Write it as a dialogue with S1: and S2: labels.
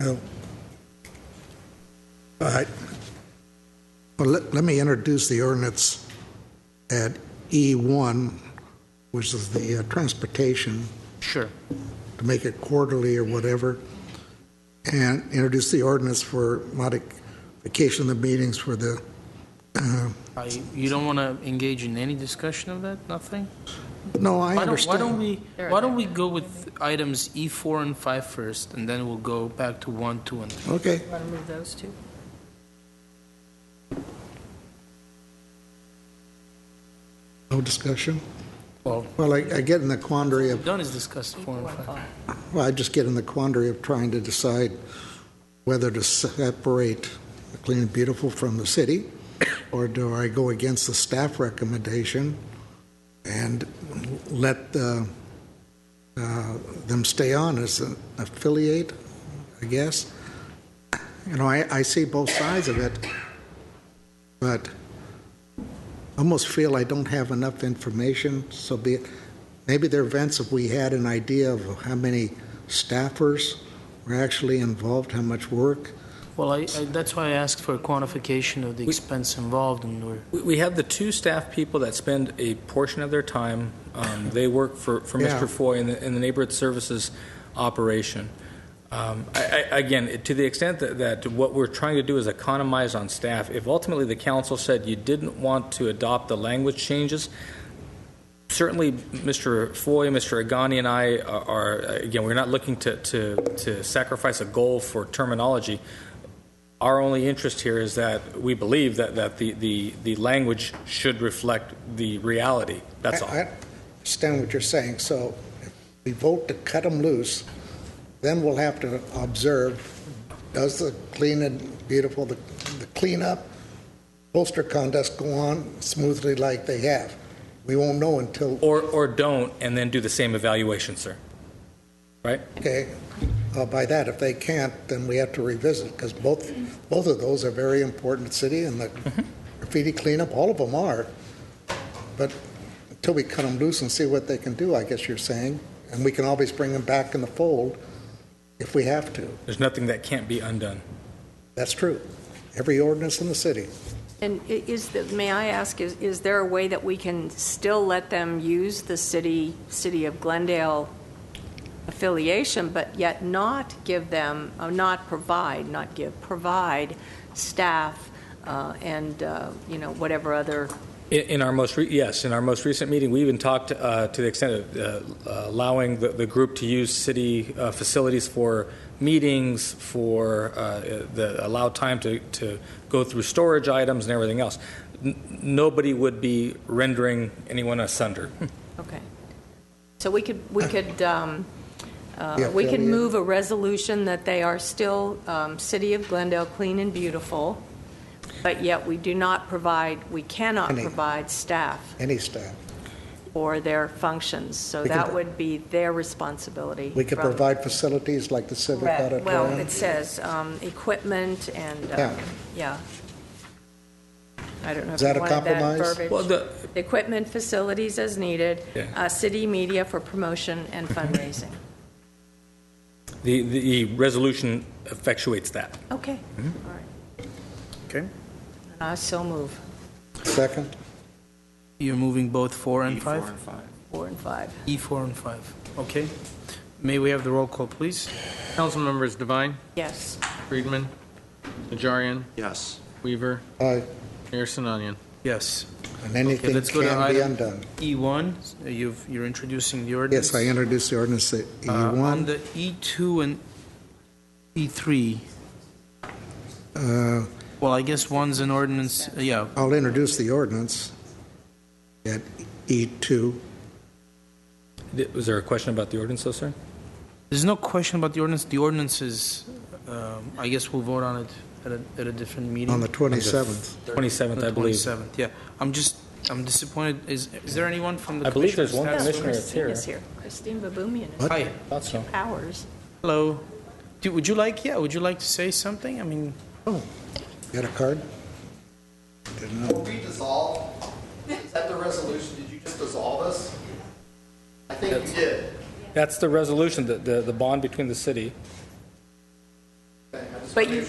S1: Oh. All right. Well, let, let me introduce the ordinance at E1, which is the uh, transportation,
S2: Sure.
S1: to make it quarterly or whatever, and introduce the ordinance for modification of the meetings for the,
S2: Uh, you- You don't want to engage in any discussion of that? Nothing?
S1: no, I
S2: Why don't, why
S1: understand.
S2: don't we, why don't we go with items E4 and 5 first, and then we'll go back to 1, 2, and 3?
S1: Okay,
S3: Want to move those two?
S1: no discussion?
S2: Well,
S1: Well, I, I get in the quandary of
S2: done is discussed 4 E and 5.
S1: Well, I just get in the quandary of trying to decide whether to separate the Clean and Beautiful from the city, or do I go against the staff recommendation and let uh, uh, them stay on as an affiliate, I guess? You know, I, I see both sides of it, but I almost feel I don't have enough information, so be it. Maybe there are events, if we had an idea of how many staffers were actually involved, how much work.
S2: Well, I, I- that's why I asked for a quantification of the expense involved, and we're,
S4: We- We have the two staff people that spend a portion of their time, um, they work for, for
S1: Yeah.
S4: Mr. Foy in the, in the neighborhood services operation. Um, I, I, again, it- to the extent that, that what we're trying to do is economize on staff, if ultimately the council said you didn't want to adopt the language changes, certainly Mr. Foy, Mr. Agani, and I are, again, we're not looking to, to, to sacrifice a goal for terminology. Our only interest here is that we believe that, that the, the, the language should reflect the reality. That's all.
S1: I I understand what you're saying, so if we vote to cut them loose, then we'll have to observe, does the Clean and Beautiful, the the cleanup, poster contest go on smoothly like they have? We won't know until,
S4: Or, or don't, and then do the same evaluation, sir.
S1: okay, uh, by that, if they can't, then we have to revisit, because both, both of those are very important to the city, and the graffiti cleanup, all of them are. But until we cut them loose and see what they can do, I guess you're saying, and we can always bring them back in the fold if we have to.
S4: There's nothing that can't be undone.
S1: That's true. Every ordinance in the city.
S3: And i- is, the- may I ask, is, is there a way that we can still let them use the city, City of Glendale affiliation, but yet not give them, uh, not provide, not give, provide staff uh, and, uh, you know, whatever other,
S4: In, in our most, re- yes, in our most recent meeting, we even talked uh, to the extent of uh, allowing the, the group to use city uh, facilities for meetings, for uh, the, allow time to, to go through storage items and everything else. N- Nobody would be rendering anyone asunder.
S3: okay. So we could, we could, um,
S1: Yeah,
S3: uh, we
S1: affiliate.
S3: can move a resolution that they are still um, City of Glendale Clean and Beautiful, but yet we do not provide, we cannot
S1: Any.
S3: provide staff
S1: Any staff.
S3: for their functions, so
S1: We can
S3: that
S1: pro-
S3: would be their responsibility.
S1: We could
S3: from-
S1: provide facilities like the civic
S3: Correct.
S1: auditorium.
S3: Well, it says um, equipment and, uh,
S1: Yeah.
S3: yeah. I don't know if
S1: Is
S3: you
S1: that a
S3: wanted that
S1: compromise?
S4: Well,
S3: verbiage.
S4: the,
S3: Equipment, facilities as needed,
S4: Yeah.
S3: uh, city media for promotion and fundraising.
S4: the, the resolution effectuates that.
S3: Okay, all right.
S1: Mm-hmm. Okay.
S3: And I so move,
S1: Second?
S2: you're moving both 4 and 5?
S3: four and five.
S2: E4 and 5, okay. May we have the roll call, please?
S5: Council members Devine,
S3: Yes,
S5: Friedman, Najarian,
S6: Yes.
S5: Weaver,
S1: Aye.
S5: Mayor Sinanian.
S2: Yes.
S1: uh, And anything
S2: let's go to
S1: can be
S2: item-
S1: undone.
S2: E1, E you've, you're introducing the ordinance?
S1: Yes, I introduced the ordinance E at
S2: Uh, On
S1: E1.
S2: the E2 and E E3,
S1: Uh,
S2: well, I guess one's an ordinance, uh, yeah,
S1: I'll introduce the ordinance at E E2.
S4: Th- Was there a question about the ordinance, though, sir?
S2: there's no question about the ordinance, the ordinance is, um, I guess we'll vote on it at a, at a different meeting.
S1: On the 27th.
S4: 27th, I
S2: The
S4: believe.
S2: 27th, yeah. I'm just, I'm disappointed, is, is there anyone from the
S4: I believe there's
S2: commissioner's
S4: one
S2: staff?
S4: Commissioner, it's
S3: Christine
S4: here.
S3: is here. Christine Baboumian
S1: What?
S2: Hi,
S4: Thought so.
S3: Powers.
S2: hello. Do- Would you like, yeah, would you like to say something? I mean,
S1: Got a card? Didn't know.
S6: Will we dissolve? Is that the resolution? Did you just dissolve us? I think you did.
S4: That's the resolution, the, the the bond between the city
S6: this
S3: But you-